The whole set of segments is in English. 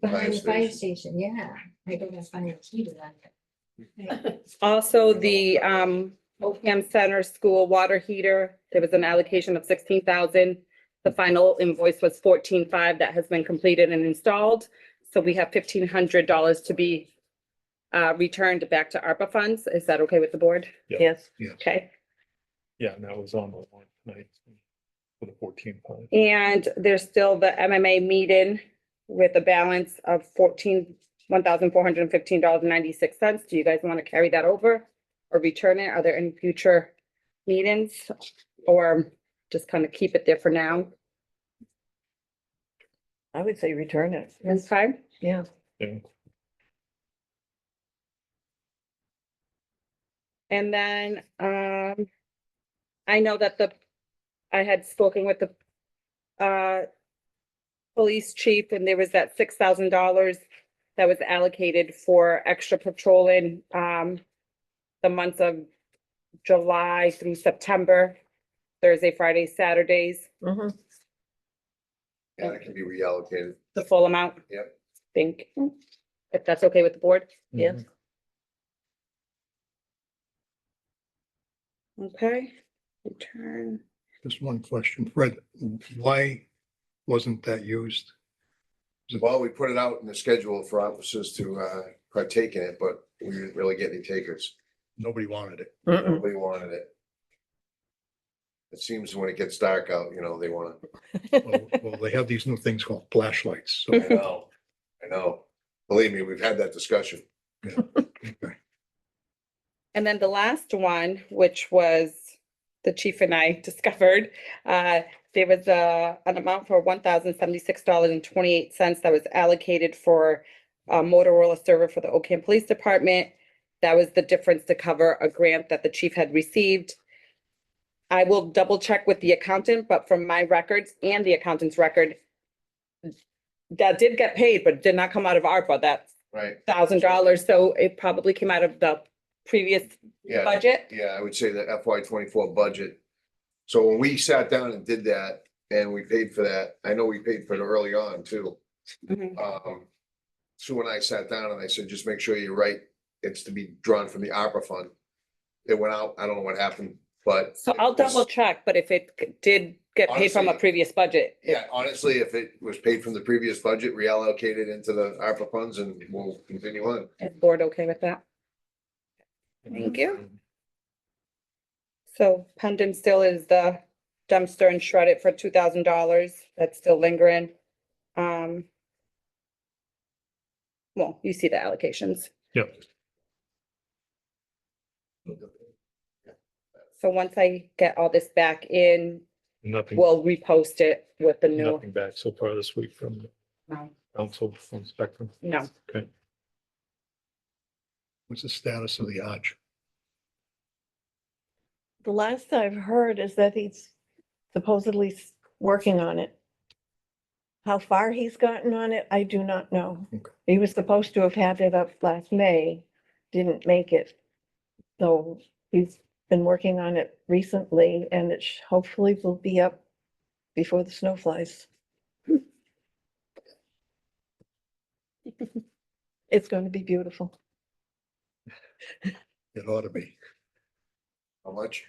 Behind the fire station. station, yeah. I gotta find a key to that. Oh, Also, the um OPM Center School water heater, there was an allocation of sixteen thousand. The final invoice was fourteen five that has been completed and installed. So we have fifteen hundred dollars to be uh returned back to ARPA funds. Is that okay with the board? Yeah. Yes. Yes. Okay, Yeah, and that was on the line tonight for the fourteen five. and there's still the MMA meeting with a balance of fourteen, one thousand four hundred and fifteen dollars and ninety-six cents. Do you guys want to carry that over? Or return it? Are there any future meetings? Or just kind of keep it there for now? I would say return it, That's fine. yeah. Yeah, And then, um, I know that the, I had spoken with the, uh, police chief and there was that six thousand dollars that was allocated for extra patrolling, um, the months of July through September, Thursday, Friday, Saturdays, Mhm. Yeah, that can be reallocated. the full amount. Yep. Think, if that's okay with the board. Yes. Okay, return. Just one question, Fred, why wasn't that used? Well, we put it out in the schedule for officers to uh partake in it, but we didn't really get any takers. Nobody wanted it. Mm-mm. Nobody wanted it. It seems when it gets dark out, you know, they wanna, Well- Well, they have these new things called flashlights, so. I know, I know. Believe me, we've had that discussion. okay. And then the last one, which was the chief and I discovered, uh, there was a, an amount for one thousand seventy-six dollars and twenty-eight cents that was allocated for a Motorola server for the Ocam Police Department. That was the difference to cover a grant that the chief had received. I will double check with the accountant, but from my records and the accountant's record, that did get paid, but did not come out of ARPA, that Right, thousand dollars, so it probably came out of the previous yeah. budget. Yeah, I would say the FY twenty-four budget. So when we sat down and did that, and we paid for that, I know we paid for it early on too. Um, Sue and I sat down and I said, just make sure you write, it's to be drawn from the opera fund. It went out, I don't know what happened, but. So I'll it was- double check, but if it c- did get paid from a Honestly- previous budget. it- Yeah, honestly, if it was paid from the previous budget, reallocate it into the ARPA funds and we'll continue on. Is board okay with that? Mm-hmm. Thank you. So pendant still is the dumpster and shred it for two thousand dollars. That's still lingering. Um. Well, you see the allocations. Yep. So once I get all this back in, Nothing, we'll repost it with the new. nothing back so far this week from the No. council from Spectrum. No. Okay. What's the status of the arch? The last I've heard is that he's supposedly s- working on it. How far he's gotten on it, I do not know. Okay. He was supposed to have had it up last May, didn't make it. So he's been working on it recently and it sh- hopefully will be up before the snow flies. It's going to be beautiful. It ought to be How much?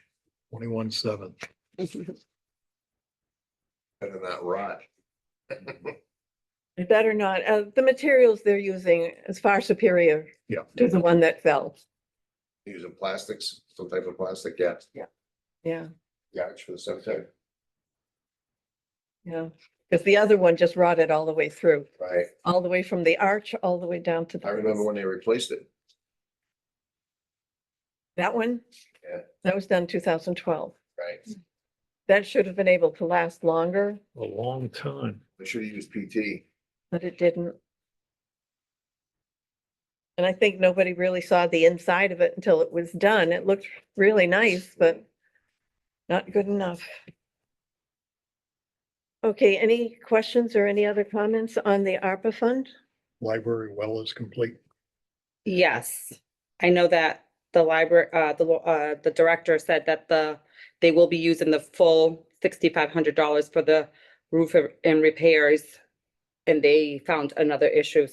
twenty-one seven. Better not rot. It Better not. Uh, the materials they're using is far superior. Yeah. To the one that fell. Using plastics, some type of plastic, yeah, Yeah, yeah, it's for the cemetery, yeah. Because the other one just rotted all the way through, right? all the way from the arch, all the way down to. the I remember base. when they replaced it. That one? Yeah. That was done two thousand twelve. Right. That should have been able to last longer, A long time. They should have used PT. but it didn't. And I think nobody really saw the inside of it until it was done. It looked really nice, but not good enough. Okay, any questions or any other comments on the ARPA fund? Library well is complete. Yes, I know that the library, uh, the, lo- uh, the director said that the, they will be using the full sixty-five hundred dollars for the roof r- and repairs and they found another issue.